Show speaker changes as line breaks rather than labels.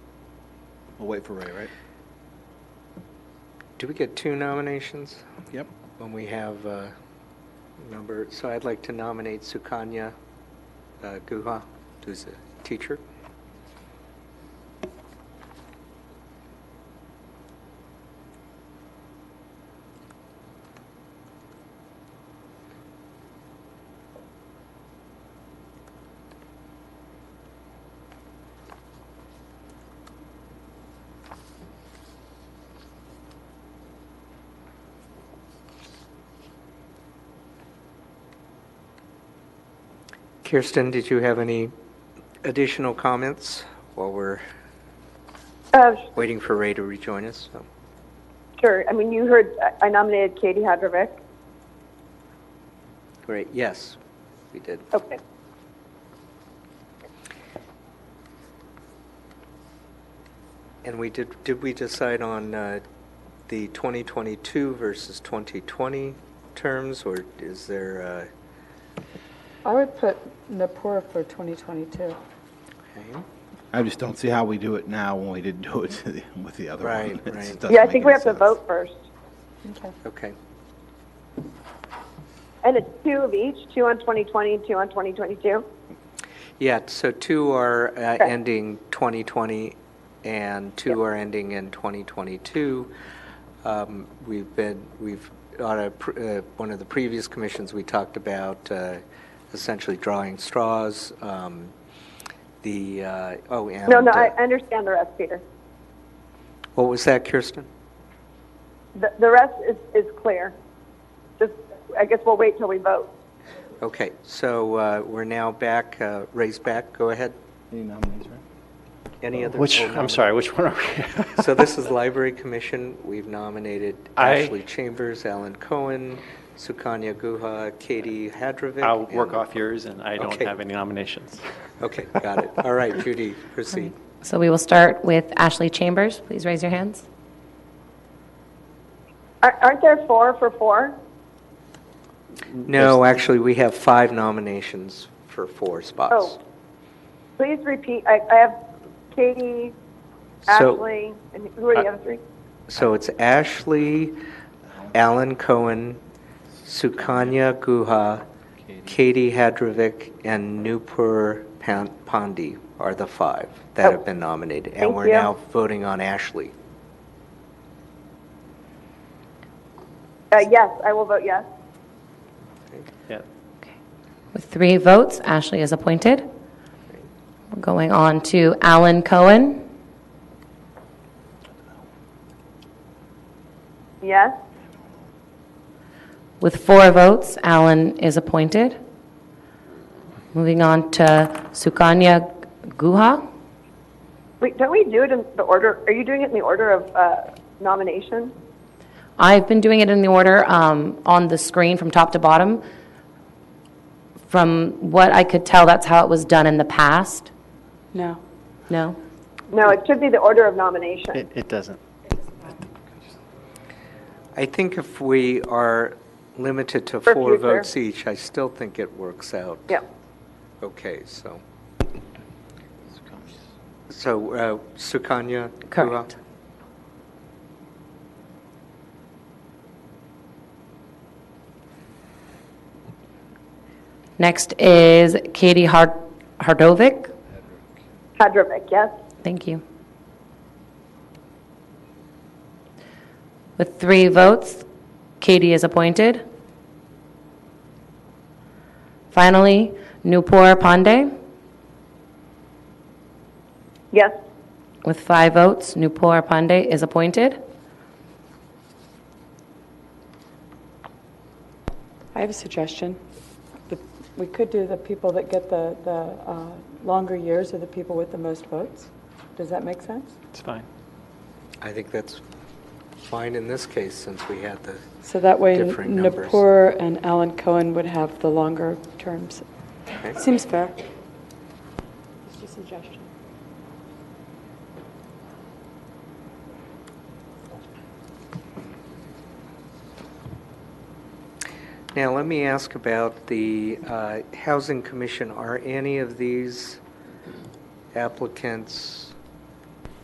We'll wait for Ray, right?
Do we get two nominations
Yep.
when we have a number? So I'd like to nominate Sukanya uh, Guha, who's a teacher. Kirsten, did you have any additional comments while we're
Uh,
waiting for Ray to rejoin us? So-
Sure. I mean, you heard uh, I nominated Katie Hadrovic.
Great, yes, we did.
Okay.
And we did, did we decide on uh, the 2022 versus 2020 terms, or is there, uh,
I would put Napur for 2022.
okay?
I just don't see how we do it now when we didn't do it to the, with the other one.
Right,
It just
right.
doesn't
Yeah, I
make
think we
any
have to
sense.
vote first.
Okay.
okay,
And it's two of each, two on 2020, two on 2022.
yeah, so two are uh,
Sure.
ending 2020, and two are ending in 2022. Um, We've been, we've, on a, pr- uh, one of the previous commissions, we talked about uh, essentially drawing straws, um, the, uh, oh, and...
No, no, I
uh,
I understand the rest, Peter.
What was that, Kirsten?
The, the rest is, is clear. Just, I guess we'll wait till we vote.
Okay, so uh, we're now back, uh, Ray's back, go ahead.
Any nominees, right? Uh,
Any other?
Which,
oh, no.
I'm sorry, which one are we?
So this is Library Commission, we've nominated
I-
Ashley Chambers, Alan Cohen, Sukanya Guha, Katie Hadrovic.
I'll work
and-
off yours, and I don't
Okay.
have any nominations.
Okay, got it. All right, Judy, proceed.
So we will start with Ashley Chambers. Please raise your hands.
Ar- Aren't there four for four?
No, actually, we have five nominations for four spots.
Oh. Please repeat. I, I have Katie,
So-
Ashley, and who are the other three?
So it's Ashley, Alan Cohen, Sukanya Guha, Katie Hadrovic, and Nupur Pan- Pandi are the five that have been nominated. And
Oh. Thank
we're
you.
now voting on Ashley.
Uh, yes, I will vote yes.
Yeah.
With three votes, Ashley is appointed. We're going on to Alan Cohen.
Yes,
With four votes, Alan is appointed. Moving on to Sukanya Guha.
Wait, don't we do it in the order? Are you doing it in the order of uh, nomination?
I've been doing it in the order um, on the screen from top to bottom. From what I could tell, that's how it was done in the past.
No.
No?
No, it should be the order of nomination.
It, it doesn't.
I think if we are limited to
For
four
future.
votes each, I still think it works out.
Yeah.
Okay, so. So uh, Sukanya Guha?
Correct. Next is Katie Hard- Hardovic.
Hadrovic, yes.
Thank you. With three votes, Katie is appointed. Finally, Nupur Pandey.
Yes.
With five votes, Nupur Pandey is appointed.
I have a suggestion. The- We could do the people that get the, the uh, longer years are the people with the most votes. Does that make sense?
It's fine.
I think that's fine in this case, since we had the,
So that way
Differing numbers.
Napur and Alan Cohen would have the longer terms. Seems fair. Just a suggestion.
now let me ask about the uh, Housing Commission. Are any of these applicants